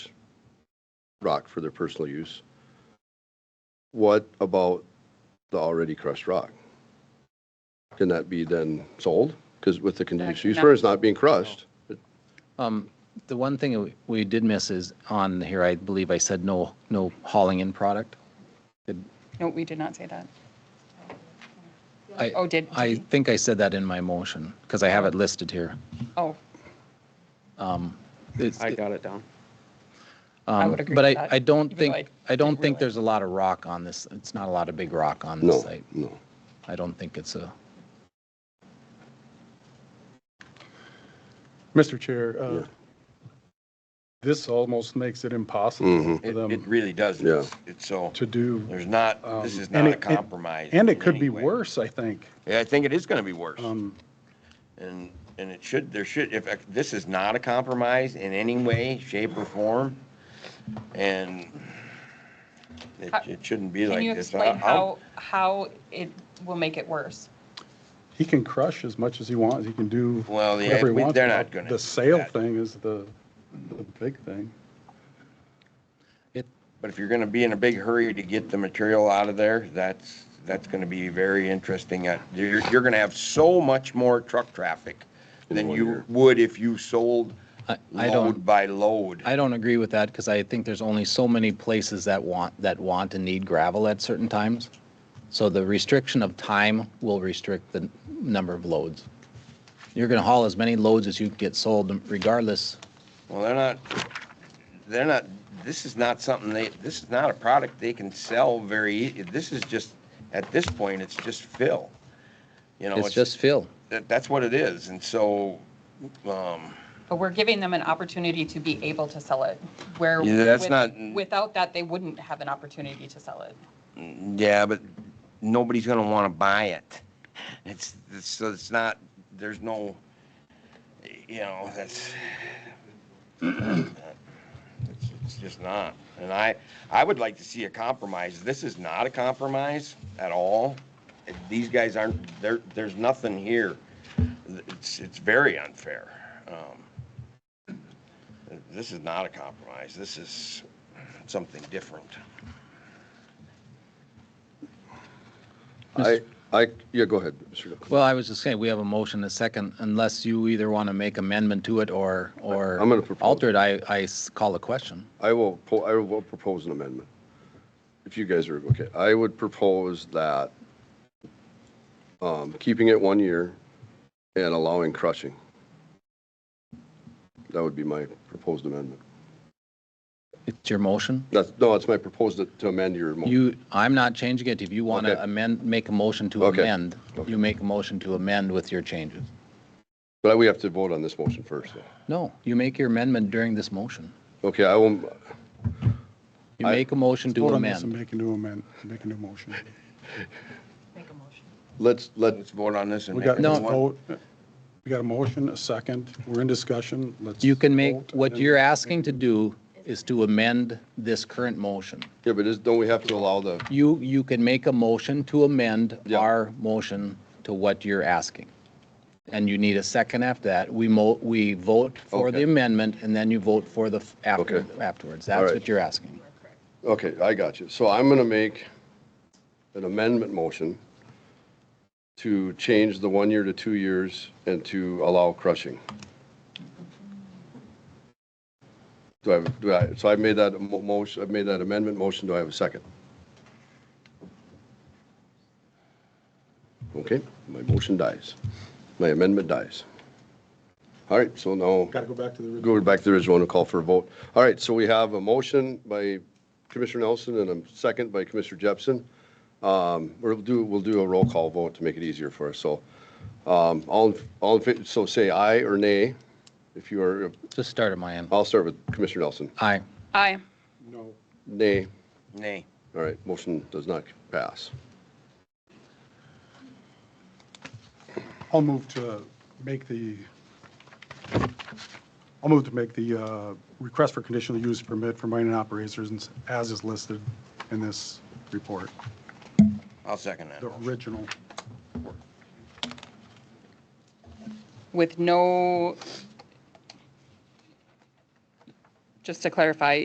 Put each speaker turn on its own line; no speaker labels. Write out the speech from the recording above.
rock for their personal use. What about the already crushed rock? Can that be then sold? Because with the continuous use permit, it's not being crushed.
Um, the one thing we- we did miss is on here, I believe I said no, no hauling in product.
No, we did not say that.
I-
Oh, did-
I think I said that in my motion because I have it listed here.
Oh,
It's-
I got it down.
I
um,
would agree
But
with
I,
that,
I don't
even though I
think, I don't
didn't
think
realize.
there's a lot of rock on this. It's not a lot of big rock on this
No,
site.
no.
I don't think it's a,
Mr. Chair, uh, this almost makes it impossible
Mhm.
for
It, it
them
really doesn't.
Yeah.
It's so,
to do.
there's not,
um,
this is
and
not a
it- it-
compromise.
And
in
it could
any
be
way.
worse, I think.
Yeah, I think it is gonna be worse.
Um,
And, and it should, there should, if, this is not a compromise in any way, shape or form. And it, it shouldn't be
Uh, can
like
you
this.
explain
I'll- I'll-
how, how it will make it worse?
He can crush as much as he wants. He can do
Well, yeah,
whatever he
we-
wants.
they're
but
not gonna do
The sale
that.
thing is the, the big thing.
it,
But if you're gonna be in a big hurry to get the material out of there, that's, that's gonna be very interesting. Uh, You're, you're gonna have so much more truck traffic than you would if you sold
I, I
load
don't,
by load.
I don't agree with that because I think there's only so many places that want, that want and need gravel at certain times. So the restriction of time will restrict the number of loads. You're going to haul as many loads as you can get sold regardless
Well, they're not, they're not, this is not something they, this is not a product they can sell very, ea- this is just, at this point, it's just fill. You know,
It's just fill.
that- That's what it is, and so, um,
But we're giving them an opportunity to be able to sell it, where.
Yeah, that's
with-
not-
Without that, they wouldn't have an opportunity to sell it.
yeah, but nobody's gonna wanna buy it. It's, it's, so it's not, there's no, you know, that's, it's, it's just not. And I, I would like to see a compromise. This is not a compromise at all. These guys aren't, there, there's nothing here. It's, it's very unfair. Um, This is not a compromise. This is something different.
I, I, yeah, go ahead. Mr. Nichols.
Well, I was just saying, we have a motion, a second, unless you either want to make amendment to it or, or
I'm gonna propose-
alter it, I, I s- call a question.
I will, po- I will propose an amendment. If you guys are okay, I would propose that um, keeping it one year and allowing crushing. That would be my proposed amendment.
It's your motion.
That's, no, it's my proposed to amend your motion.
You, I'm not changing it. If you want
Okay.
to amend, make a motion to
Okay.
amend, you make a motion to amend with your changes.
But we have to vote on this motion first. though.
No, you make your amendment during this motion.
Okay, I will,
You
I-
make a motion to
Vote on this and
amend.
Make a new amend, make a new motion.
Make a motion.
let's, let,
Let's vote on this and
We
make
got,
it
No.
one.
vote. we got a motion, a second. We're in discussion. Let's.
You can make,
vote,
what
and-
you're asking to do is to amend this current motion.
yeah, but is, don't we have to allow the,
You, you can make a motion to amend
Yeah.
our motion to what you're asking. And you need a second after that. We mo, we vote for the
Okay.
amendment and then you vote for the f- after,
Okay.
afterwards.
All
That's
right.
what you're asking.
okay, I got you. So I'm going to make an amendment motion to change the one year to two years and to allow crushing. Do I, do I, so I made that mo- motion, I've made that amendment motion. Do I have a second? Okay, my motion dies. My amendment dies. All right, so now.
Got to go back to the. original.
go back to the original and call for a vote. All right, so we have a motion by Commissioner Nelson and a second by Commissioner Jepson. Um, We'll do, we'll do a roll call vote to make it easier for us, so. um, All, in- all, in fa- so say aye or nay, if you are,
Just start at my end.
I'll start with Commissioner Nelson.
Aye.
Aye.
No.
Nay,
Nay.
all right, motion does not pass.
I'll move to make the, I'll move to make the uh, request for conditional use permit for mining operations as is listed in this report,
I'll second that.
the original.
With no, just to clarify,